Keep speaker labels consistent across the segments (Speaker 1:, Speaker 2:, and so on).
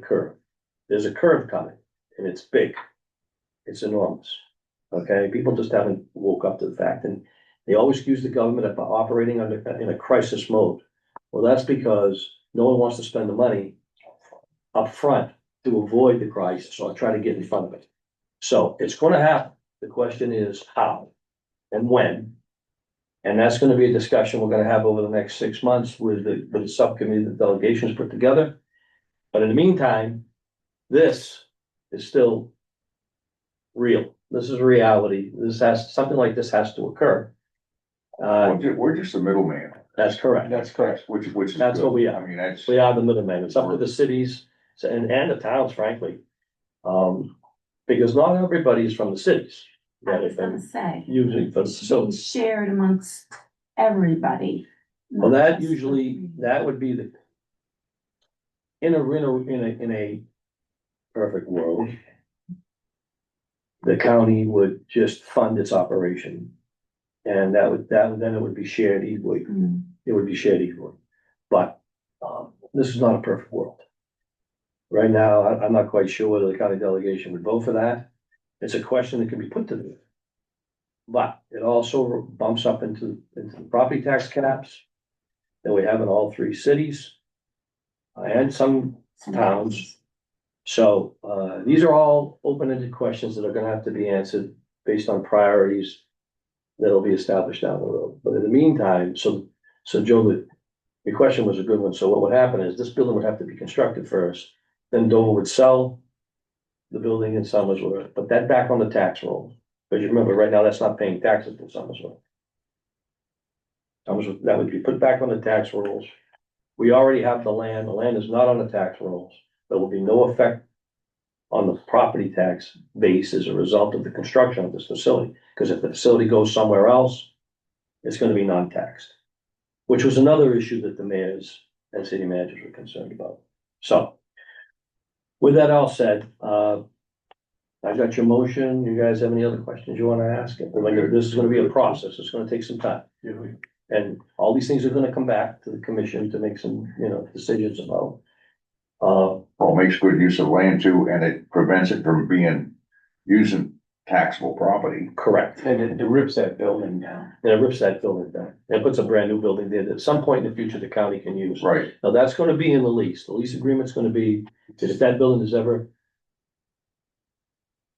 Speaker 1: curve. There's a curve coming and it's big. It's enormous. Okay, people just haven't woke up to the fact and they always accuse the government of operating under, in a crisis mode. Well, that's because no one wants to spend the money up front to avoid the crisis or try to get in front of it. So it's gonna happen. The question is how and when. And that's gonna be a discussion we're gonna have over the next six months with the, with the subcommittee that delegations put together. But in the meantime, this is still real. This is reality. This has, something like this has to occur. Uh,
Speaker 2: We're ju- we're just a middleman,
Speaker 1: that's correct.
Speaker 3: That's correct.
Speaker 2: which, which is.
Speaker 1: That's what
Speaker 2: good.
Speaker 1: we are.
Speaker 2: I mean, that's,
Speaker 1: We are the middleman. It's up to the cities and, and the towns frankly. Um, because not everybody is from the cities.
Speaker 4: I
Speaker 1: that
Speaker 4: was
Speaker 1: have
Speaker 4: gonna
Speaker 1: been
Speaker 4: say,
Speaker 1: using
Speaker 4: it's
Speaker 1: facilities.
Speaker 4: shared amongst everybody.
Speaker 1: Well,
Speaker 4: not
Speaker 1: that
Speaker 4: just the
Speaker 1: usually,
Speaker 4: community.
Speaker 1: that would be the. In a, in a, in a, in a perfect world. The county would just fund its operation. And that would, that, then it would be shared equally,
Speaker 4: Mm.
Speaker 1: it would be shared equally. But, um, this is not a perfect world. Right now, I, I'm not quite sure whether the county delegation would vote for that. It's a question that can be put to them. But it also bumps up into, into the property tax caps that we have in all three cities. uh, And some, Towns. so, uh, these are all open-ended questions that are gonna have to be answered based on priorities. That'll be established down the road, but in the meantime, so, so Joe, the, your question was a good one, so what would happen is this building would have to be constructed first. Then Dover would sell the building in Summersworth, put that back on the tax roll, because you remember, right now, that's not paying taxes in Summersworth. Summersworth, that would be put back on the tax rolls. We already have the land, the land is not on the tax rolls, there will be no effect on the property tax base as a result of the construction of this facility, because if the facility goes somewhere else, it's gonna be non-taxed, which was another issue that the mayors and city managers were concerned about. So, with that all said, uh, I've got your motion, you guys have any other questions you wanna ask? Remember, This is gonna be a process, it's gonna take some time. And all these things are gonna come back to the commission to make some, you know, decisions about. Uh,
Speaker 2: well, makes good use of land too, and it prevents it from being, using taxable property.
Speaker 1: correct,
Speaker 3: And it it rips that building down.
Speaker 1: and it rips that building down, and puts a brand new building there that at some point in the future the county can use.
Speaker 2: Right,
Speaker 1: Now, that's gonna be in the lease, the lease agreement's gonna be, that if that building is ever.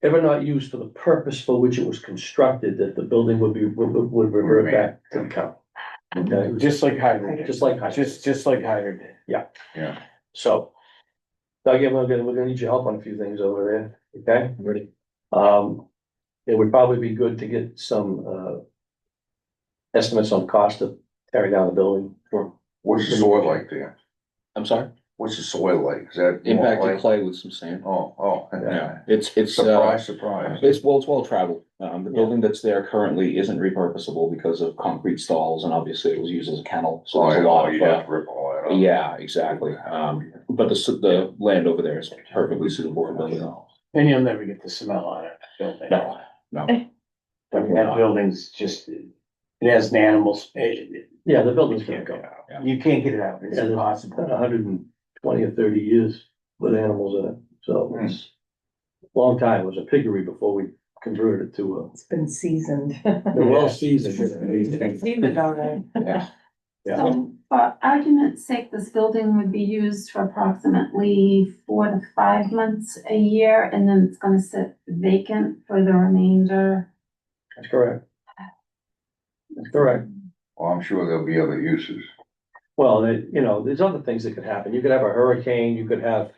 Speaker 1: Ever not used for the purpose for which it was constructed, that the building would be, would, would- would revert back to the county. Okay,
Speaker 3: Just like Hyder did.
Speaker 1: just like. I-
Speaker 3: Just, just like Hyder did.
Speaker 1: So. Doug, yeah, we're gonna, we're gonna need your help on a few things over there, okay?
Speaker 3: Ready.
Speaker 1: Um, it would probably be good to get some, uh. Estimates on cost of tearing down the building.
Speaker 2: what's the soil like there?
Speaker 5: I'm sorry,
Speaker 2: What's the soil like? Is that?
Speaker 5: impacted clay with some sand.
Speaker 2: Oh, oh.
Speaker 5: Yeah, it's, it's, uh,
Speaker 2: Surprise, surprise.
Speaker 5: it's, well, it's well traveled. Um, the
Speaker 1: Yeah.
Speaker 5: building that's there currently isn't repurposable because of concrete stalls and obviously it was used as a kennel, so
Speaker 2: Oh,
Speaker 5: there's a
Speaker 2: yeah,
Speaker 5: lot of,
Speaker 2: you'd have
Speaker 5: uh,
Speaker 2: to rip all that up.
Speaker 5: yeah, exactly. Um, but the, s- the land over there is perfectly suitable for building.
Speaker 3: And you'll never get the smell out of that building.
Speaker 5: No, no.
Speaker 3: I mean, that building's just, it has an animal, sp- it,
Speaker 1: Yeah, the building's
Speaker 3: it
Speaker 1: gonna
Speaker 3: can't
Speaker 1: go,
Speaker 3: go. You can't get it out. It's
Speaker 1: Yeah, the-
Speaker 3: impossible.
Speaker 1: a hundred and twenty or thirty years with animals in it, so it's. Long time, it was a piggery before we converted it to
Speaker 6: It's been seasoned.
Speaker 1: a, well seasoned.
Speaker 6: Seasoned already.
Speaker 5: Yeah.
Speaker 1: Yeah,
Speaker 4: So, for argument's sake, this building would be used for approximately four to five months a year, and then it's gonna sit vacant for the remainder.
Speaker 1: that's correct. That's correct.
Speaker 2: Well, I'm sure there'll be other uses.
Speaker 1: Well, it- you know, there's other things that could happen. You could have a hurricane, you could have,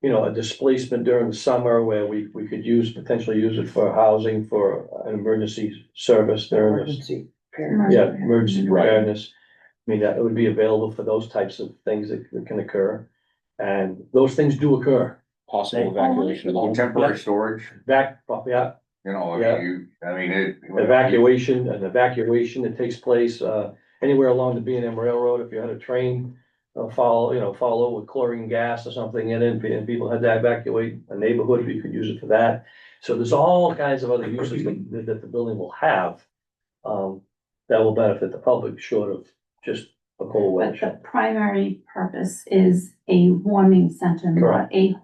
Speaker 1: you know, a displacement during the summer where we, we could use, potentially use it for housing, for an emergency service during this.
Speaker 6: Emergency.
Speaker 1: Yeah, emergency
Speaker 5: Right.
Speaker 1: preparedness. I mean, that it would be available for those types of things that that can occur. And those things do occur.
Speaker 5: Possible evacuation of the whole.
Speaker 2: Temporary storage,
Speaker 1: Back, yeah,
Speaker 2: you know, I
Speaker 1: Yeah.
Speaker 2: mean, you, I mean, it.
Speaker 1: evacuation, an evacuation that takes place, uh, anywhere along the B and M Railroad, if you had a train. Uh, follow, you know, follow with chlorine gas or something in it, and people had to evacuate a neighborhood, you could use it for that. So there's all kinds of other uses that, that the building will have. Um, that will benefit the public short of just a cold
Speaker 4: But
Speaker 1: weather shelter.
Speaker 4: the primary purpose is a warming center, not
Speaker 1: Correct.
Speaker 4: a